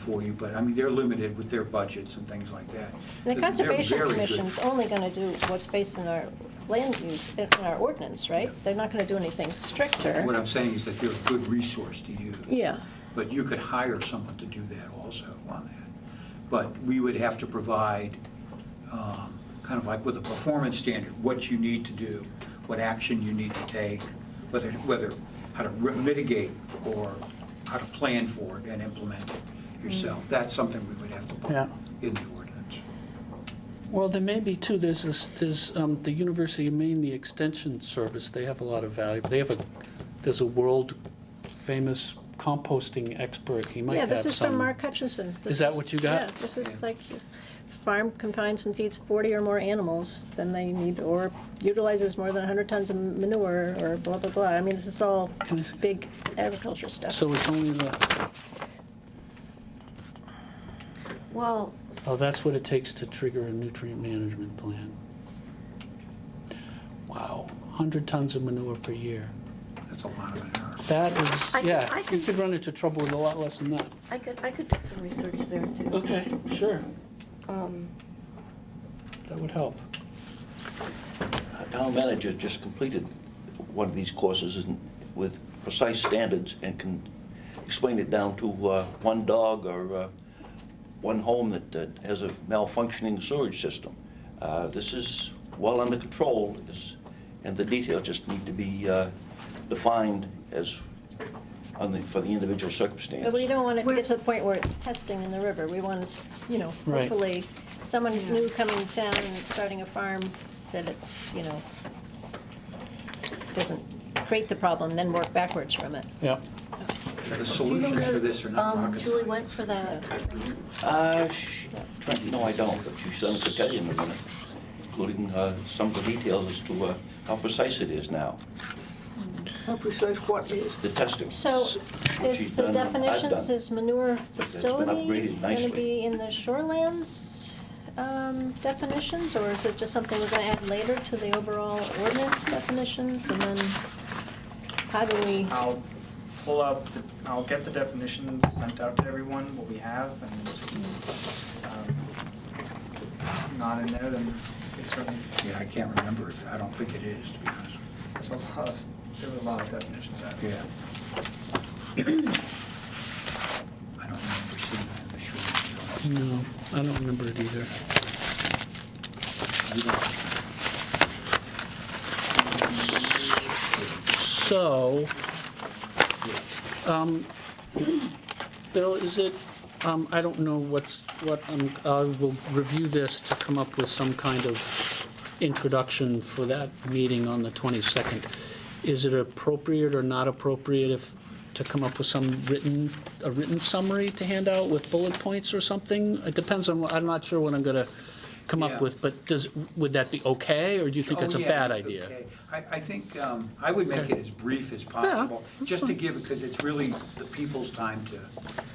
for you, but I mean, they're limited with their budgets and things like that. The They're Conservation very good. Commission's only going to do what's based in our land use, in our ordinance, right? They're not going to do anything stricter. What I'm saying is that they're a good resource to use. Yeah. But you could hire someone to do that also on that. But we would have to provide, um, kind of like with a performance standard, what you need to do, what action you need to take, whether, whether, how to re- mitigate or how to plan for it and implement it yourself. Mm. That's something we would have to put Yeah. in the ordinance. Well, there may be too, there's, this- there's, um, the University of Maine, the Extension Service, they have a lot of value. They have a, there's a world-famous composting expert, he might Yeah, have some. this is from Mark Hutchinson. This Is that what you got? Yeah, this is like, farm confines and feeds 40 or more animals than they need, or utilizes more than 100 tons of manure, or blah, blah, blah. I mean, this is all Can I see? big agriculture stuff. So it's only the, Well, oh, that's what it takes to trigger a nutrient management plan. Wow, 100 tons of manure per year. That's a lot of an error. That is, I could- yeah, I you could- could run into trouble with a lot less than that. I could, I could do some research there too. Okay, sure, Um, that would help. Our town manager just completed one of these courses and- with precise standards and can explain it down to uh, one dog or uh, one home that that has a malfunctioning sewage system. Uh, This is well under control, is- and the details just need to be uh, defined as, on the- for the individual circumstance. But we don't want it to get to the point where it's testing in the river. We want, to s- you know, Right. hopefully, someone new coming down and starting a farm, that it's, you know, doesn't create the problem, then work backwards from it. Yep. The do you know solutions for where, this are not um, rocket Julie science. went for that? Uh, sh- Trent, no, I don't, but you certainly could tell you in a minute, including uh, some of the details as to uh, how precise it is now, How precise what is? the testing. So She's is the done, I've definitions, done. is manure It's been facility upgraded going to nicely. be in the shorelands um, definitions? Or is it just something we're going to add later to the overall ordinance definitions? And then how do we, I'll pull out, the I'll get the definitions sent out to everyone, what we have, and um, if it's not in there, then it's certainly, Yeah, I can't remember. it. I don't think it is, to be honest. with it's a lot of, there were a lot of definitions out you. there. Yeah. I don't remember seeing that in the short. No, I don't remember it either. You don't- So, um, Bill, is it, um, I don't know what's, what, um, I will review this to come up with some kind of introduction for that meeting on the 22nd. Is it appropriate or not appropriate if, to come up with some written, a written summary to hand out with bullet points or something? It depends on, what- I'm not sure what I'm gonna come Yeah. up with, but does, would that be okay, or do you think Oh, that's a yeah, bad okay. idea? I, I think, um, I would make it as brief as possible, just to give, because it's really the people's time to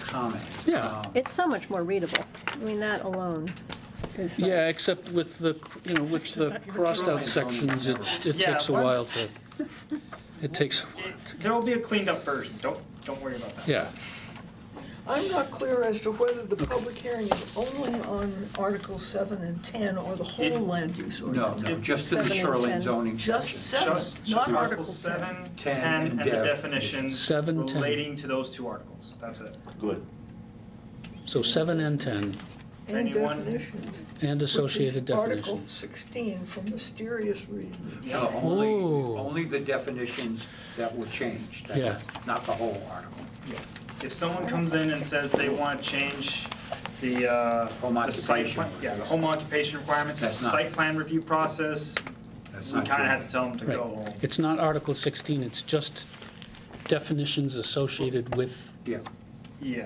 comment. Yeah. Um, it's so much more readable. I mean, that alone is like- Yeah, except with the, you know, with the crossed-out sections, it, it Yeah, takes a while once- to, it takes, a while. There will be a cleaned up version, don't, don't worry about that. yeah. I'm not clear as to whether the public hearing is only on Article 7 and 10 or the It- whole land use No, ordinance. no, just to the Seven and shoreline ten. zoning Just section. 7, Just, not just Article Article 7. seven, Ten, ten, and and the def- definitions Seven, ten. relating to those two articles, that's it. Good. So seven and 10, And Anyone? definitions. and which is associated Article definitions. 16 for mysterious reasons. No, only, Oh. only the definitions that were changed. That's Yeah. it, Not the whole article. If someone comes in and says they want to change the, uh, Home the site occupation. plan, yeah, the home occupation requirements, the That's not- site plan review process, That's we not kind of true. had to tell them to Right, go home. it's not Article 16, it's just definitions associated with, Yeah, Yeah,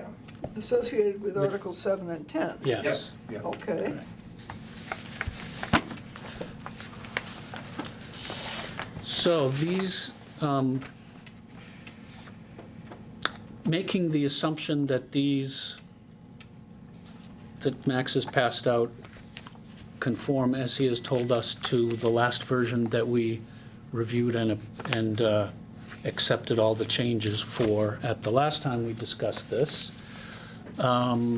Associated with With- Article 7 and 10. yes. yeah. Okay. So these, um, making the assumption that these, that Max has passed out conform, as he has told us, to the last version that we reviewed and, and uh, accepted all the changes for at the last time we discussed this. Um,